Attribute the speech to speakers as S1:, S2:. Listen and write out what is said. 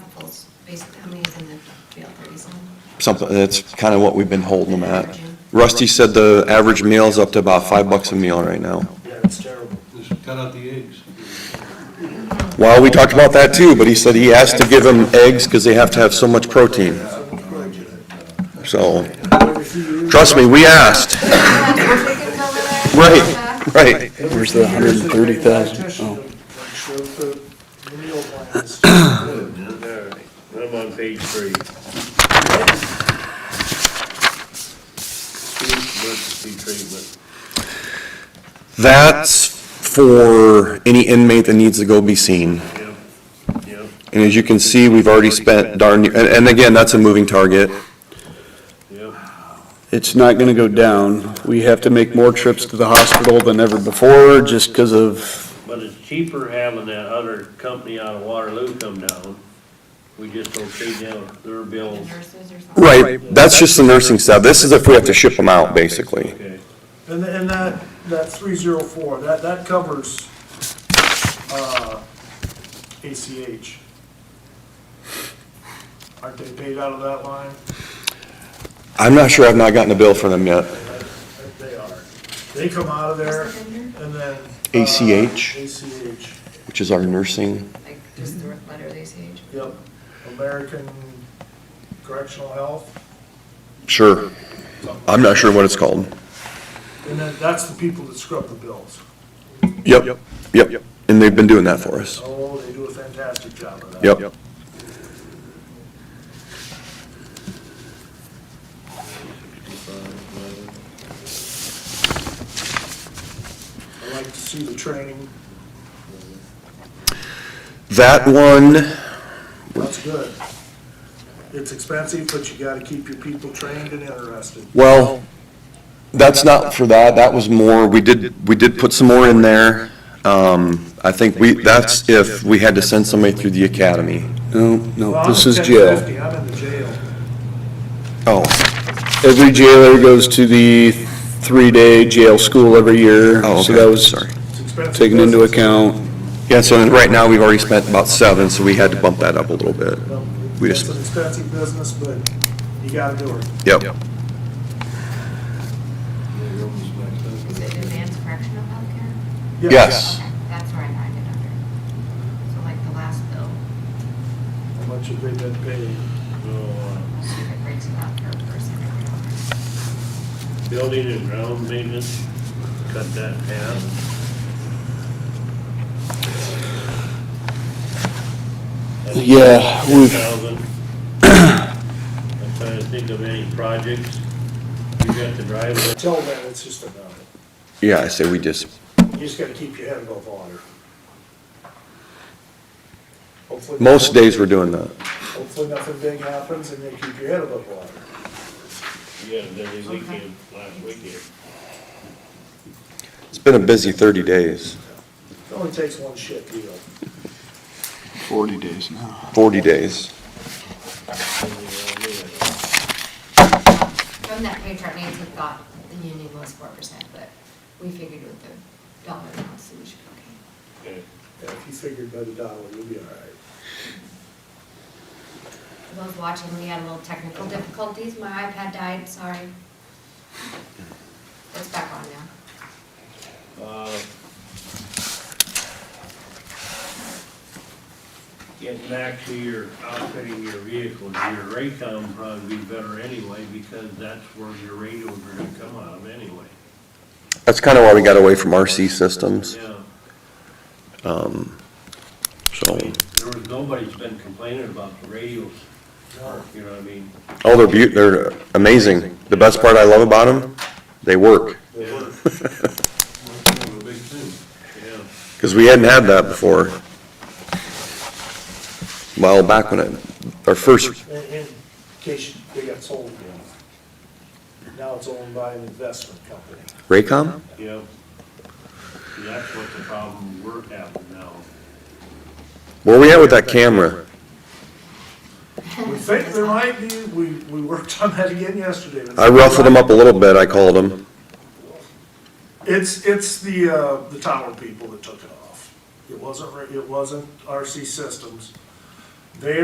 S1: animals, basically, how many is in the jail, thirty something?
S2: Something, that's kind of what we've been holding them at. Rusty said the average meal's up to about five bucks a meal right now.
S3: Yeah, it's terrible.
S4: Just cut out the eggs.
S2: Well, we talked about that too, but he said he asked to give them eggs because they have to have so much protein. So, trust me, we asked. Right, right.
S5: Where's the hundred and thirty thousand? Oh,
S2: Oh.
S3: Alright, I'm on page three. Emergency treatment.
S2: That's for any inmate that needs to go be seen.
S3: Yep, yep.
S2: And as you can see, we've already spent darn, near- and, and again, that's a moving target.
S3: Yep.
S5: It's not gonna go down. We have to make more trips to the hospital than ever before, just because of,
S3: But it's cheaper having that other company out of Waterloo come down. We just don't pay their, their bills.
S1: Nurses or something?
S2: Right, that's just the nursing staff. This is if we have to ship them out, basically.
S3: Okay.
S6: And, and that, that three zero four, that, that covers, uh, ACH. Aren't they paid out of that line?
S2: I'm not sure, I've not gotten a bill for them yet.
S6: They are. They come out of there and then. uh,
S2: ACH?
S6: ACH,
S2: Which is our nursing.
S1: Like, just the
S2: Mm-hmm.
S1: letter they say.
S6: yep. American Correctional Health.
S2: Sure. I'm not sure what it's called.
S6: And then that's the people that scrub the bills.
S2: Yep, yep. And they've been doing that for us.
S6: Oh, they do a fantastic job of that.
S2: Yep.
S6: I like to see the training.
S2: That one,
S6: That's good. It's expensive, but you gotta keep your people trained and interested.
S2: well, that's not for that. That was more, we did, we did put some more in there. Um, I think we, that's if we had to send somebody through the academy.
S5: no, no,
S6: Well,
S5: this is
S6: I'm
S5: jail.
S6: 1050, I'm in the jail.
S2: Oh,
S5: Every jailer goes to the three-day jail school every year.
S2: oh,
S5: So that
S2: okay,
S5: was
S2: sorry.
S6: It's expensive.
S5: taken into
S6: business.
S5: account.
S2: Yeah, so right now, we've already spent about seven, so we had to bump that up a little bit.
S6: Well,
S2: We
S6: It's
S2: just-
S6: an expensive business, but you gotta do it.
S2: Yep.
S1: Is it advanced correctional healthcare?
S2: Yes.
S1: Okay, That's where I find it under. So like the last bill,
S6: How much have they been paid?
S3: Uh,
S1: let's see if it breaks it out per person.
S3: Building and ground maintenance, cut that down.
S5: Yeah,
S3: Ten
S5: we've,
S3: thousand. I'm trying to think of any projects. You got the driveway.
S6: Tell them it's just a number.
S2: Yeah, I say we just,
S6: You just gotta keep your head above water. Hopefully-
S2: most days we're doing that.
S6: Hopefully nothing big happens and you keep your head above water.
S3: You got a busy weekend, last weekend.
S2: It's been a busy 30 days,
S6: It only takes one shit deal.
S2: 40 days.
S1: From that pay chart, Nancy thought the union was four percent, but we figured with the dollar amount, so we should be okay.
S3: Okay.
S6: Yeah, If you figured by the dollar, you'll be all right.
S1: For those watching, we had a little technical difficulties. My iPad died, sorry. It's back on now.
S3: Uh, Getting back to your outfitting your vehicles, your Raycom probably be better anyway, because that's where your radios are gonna come out of anyway.
S2: That's kind of why we got away from RC systems,
S3: Yeah,
S2: so,
S3: there was, nobody's been complaining about the radios, you know what I mean?
S2: oh, they're beaut, they're amazing. The best part I love about them, they work,
S3: They were. One of the big things, yeah.
S2: because we hadn't had that before. Well, back when it, our first,
S6: In, in case they got sold again. Now it's owned by an investment company.
S2: Raycom?
S3: Yep. See, That's what the problem we're having now.
S2: Where we at with that camera?
S6: We think there might be, we, we worked on that again yesterday.
S2: I ruffled them up a little bit, I called them.
S6: It's, it's the, uh, the tower people that took it off. It wasn't, it wasn't RC Systems. They